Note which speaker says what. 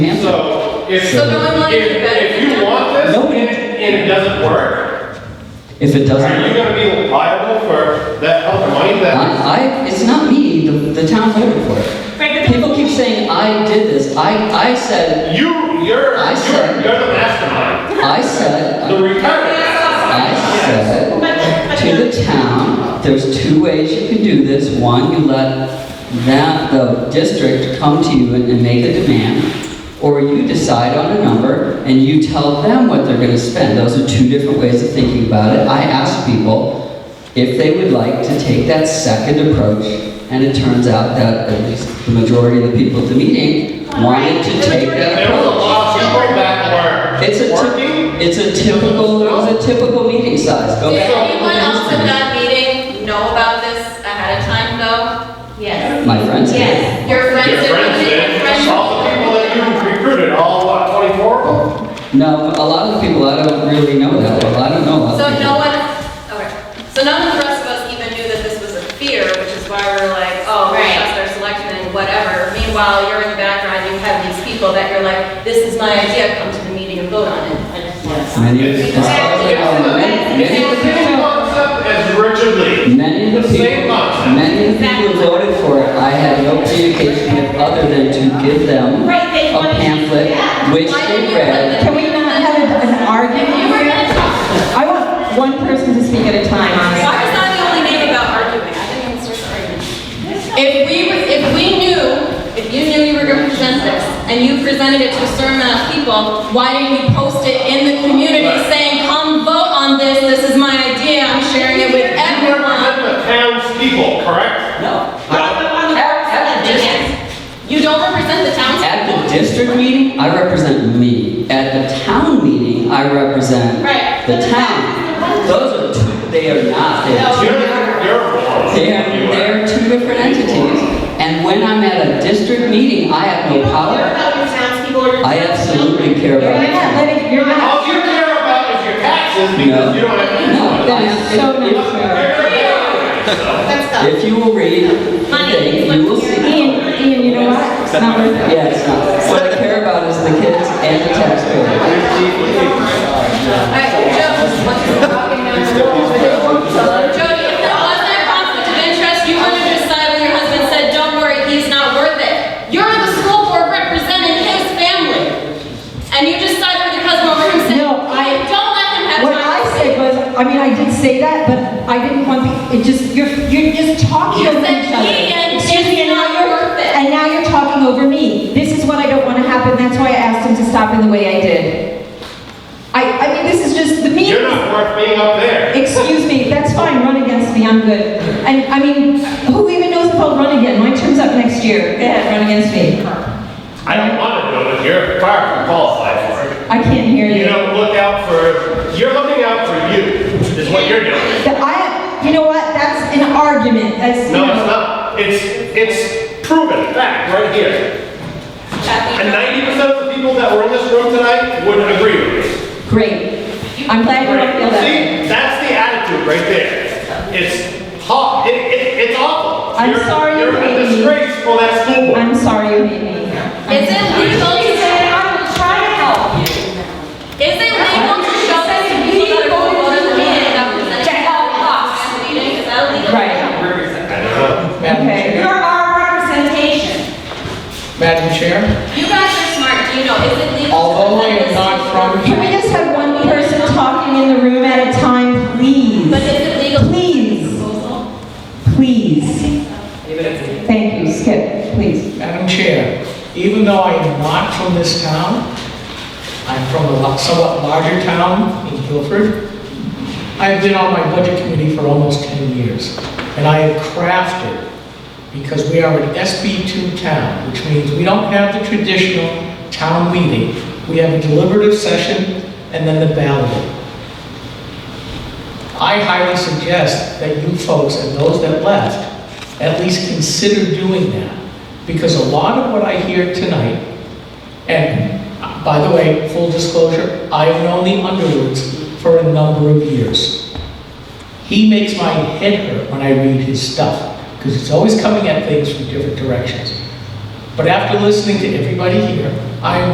Speaker 1: If,
Speaker 2: So no one wanted
Speaker 1: if-
Speaker 2: to do better
Speaker 1: if
Speaker 2: than
Speaker 1: you
Speaker 2: that?
Speaker 1: want this
Speaker 3: No.
Speaker 1: and it- and it doesn't work,
Speaker 3: If it doesn't.
Speaker 1: are you gonna be liable for that amount of money that?
Speaker 3: I, I, it's not me, the, the town voted for
Speaker 2: Right,
Speaker 3: it.
Speaker 2: but the-
Speaker 3: People keep saying, I did this, I, I said,
Speaker 1: You, you're,
Speaker 3: I
Speaker 1: you're,
Speaker 3: said-
Speaker 1: you're the mastermind.
Speaker 3: I said,
Speaker 1: The retarded.
Speaker 3: I said to the town, there's two ways you can do this. One, you let that, the district come to you and, and make a demand, or you decide on a number and you tell them what they're gonna spend. Those are two different ways of thinking about it. I asked people if they would like to take that second approach, and it turns out that at least the majority of the people at the meeting wanted to take that
Speaker 1: There was a
Speaker 3: approach.
Speaker 1: lot of people back
Speaker 3: It's a,
Speaker 1: where working.
Speaker 3: typ- it's a typical, it was a typical meeting size, go
Speaker 2: Did
Speaker 3: back.
Speaker 2: anyone else at that meeting know about this ahead of time though? Yes.
Speaker 3: My friends.
Speaker 2: Yes. Your friends.
Speaker 1: Your
Speaker 2: did-
Speaker 1: friends
Speaker 2: your friends-
Speaker 1: did, all the people that you recruited, all what, twenty-four of them?
Speaker 3: No, a lot of people, I don't really know that, well, I don't know a lot
Speaker 2: So
Speaker 3: of
Speaker 2: no
Speaker 3: people.
Speaker 2: one, okay, so none of the rest of us even knew that this was a fear, which is why we were like, oh, we trust our selectmen, whatever. Meanwhile, you're in the background, you have these people that you're like, this is my idea, come to the meeting and vote on it. I just want to-
Speaker 3: Many of
Speaker 1: It's
Speaker 3: the
Speaker 1: it's the same concept as Richard Lee.
Speaker 3: Many of the
Speaker 1: The same
Speaker 3: people,
Speaker 1: concept.
Speaker 3: many of the people who voted for it, I had no communication with other than to give them
Speaker 4: Right, they
Speaker 3: a
Speaker 4: wanted-
Speaker 3: pamphlet,
Speaker 4: yeah.
Speaker 3: which
Speaker 2: Why
Speaker 3: they
Speaker 2: didn't you put
Speaker 3: read.
Speaker 2: the-
Speaker 4: Can we not have an- an argument?
Speaker 2: You were gonna talk.
Speaker 4: I want one person to speak at a time on
Speaker 2: Why is
Speaker 4: this.
Speaker 2: that the only name about arguing? I didn't even start the argument. If we, were- if we knew, if you knew you were gonna present this, and you presented it to a certain amount of people, why didn't you post it in the community saying, come vote on this, this is my idea, I'm sharing it with
Speaker 1: You represent
Speaker 2: everyone?
Speaker 1: the townspeople, correct?
Speaker 3: No,
Speaker 2: At the district. You don't represent the
Speaker 3: at
Speaker 2: townspeople?
Speaker 3: the district meeting, I represent me. At the town meeting, I represent
Speaker 2: Right.
Speaker 3: the town. Those are two, they are not, they are two
Speaker 1: You're, you're a moron.
Speaker 3: They're,
Speaker 1: You are.
Speaker 3: they're two different entities, and when I'm at a district meeting, I have no power.
Speaker 4: about your townspeople or
Speaker 3: I absolutely care
Speaker 4: You're
Speaker 3: about
Speaker 4: not
Speaker 3: it.
Speaker 4: letting, you're not.
Speaker 1: All you care about is your taxes because you don't have to.
Speaker 3: No,
Speaker 4: That is so
Speaker 3: if-
Speaker 4: not fair.
Speaker 3: If you will read the thing, you will see.
Speaker 4: Ian, Ian, you know what? It's not worth it.
Speaker 3: Yeah, it's not, what I care about is the kids and the taxpayers.
Speaker 2: Alright, Joe, what's your walking down the hall? Jody, if there was that conflict of interest, you wouldn't have decided when your husband said, don't worry, he's not worth it. You're the school board representing his family. And you just sided with your husband over him saying,
Speaker 4: No, I-
Speaker 2: don't let him have
Speaker 4: What I
Speaker 2: time.
Speaker 4: said was, I mean, I did say that, but I didn't want, the- it just, you're, you're just talking
Speaker 2: You
Speaker 4: over
Speaker 2: said,
Speaker 4: each other.
Speaker 2: "Ian,
Speaker 4: Excuse me, and
Speaker 2: it's
Speaker 4: now
Speaker 2: not
Speaker 4: you're-
Speaker 2: worth it."
Speaker 4: And now you're talking over me. This is what I don't want to happen, that's why I asked him to stop in the way I did. I, I mean, this is just, the meeting
Speaker 1: You're not worth being up there.
Speaker 4: Excuse me, that's fine, run against me, I'm good. And, I mean, who even knows if I'll run again? My term's up next year. Go ahead, run against me.
Speaker 1: I don't want to do it. You're far from qualified for it.
Speaker 4: I can't hear
Speaker 1: You
Speaker 4: you.
Speaker 1: don't look out for, you're looking out for you, is what you're doing.
Speaker 4: That I, you know what, that's an argument, that's, you
Speaker 1: No, it's
Speaker 4: know.
Speaker 1: not. It's, it's proven fact right here. And
Speaker 2: Kathy,
Speaker 1: ninety percent of the people that were in this room tonight would agree with me.
Speaker 4: Great. I'm glad you don't feel that. way.
Speaker 1: See, that's the attitude right there. It's hot, it, it, it's awful.
Speaker 4: I'm
Speaker 1: You're-
Speaker 4: sorry you
Speaker 1: You're
Speaker 4: hate
Speaker 1: a
Speaker 4: me.
Speaker 1: disgrace for that school board.
Speaker 4: I'm sorry you hate me.
Speaker 2: Is it legal to say, I will try to help you? Is it legal to show that to people that are going to the meeting that representing all costs at the meeting? Is that illegal?
Speaker 4: Right,
Speaker 5: Madam
Speaker 4: okay.
Speaker 5: Chair?
Speaker 4: our representation.
Speaker 5: Madam Chair,
Speaker 2: You guys are smart, do you know, is it legal? to
Speaker 5: although I
Speaker 2: present this
Speaker 5: am
Speaker 2: to
Speaker 5: not
Speaker 2: people?
Speaker 5: from
Speaker 4: Can we
Speaker 5: here,
Speaker 4: just have one person talking in the room at a time,
Speaker 2: But
Speaker 4: please?
Speaker 2: is it legal?
Speaker 4: Please, please. Thank you, Skip, please.
Speaker 5: Madam Chair, even though I am not from this town, I'm from a lo- somewhat larger town in Guilford, I have been on my budget committee for almost 10 years, and I have crafted, because we are an SB2 town, which means we don't have the traditional town meeting, we have a deliberative session and then the ballot. I highly suggest that you folks and those that left at least consider doing that. Because a lot of what I hear tonight, and uh, by the way, full disclosure, I've known the Underwoods for a number of years. He makes my head hurt when I read his stuff, because it's always coming at things from different directions. But after listening to everybody here, I am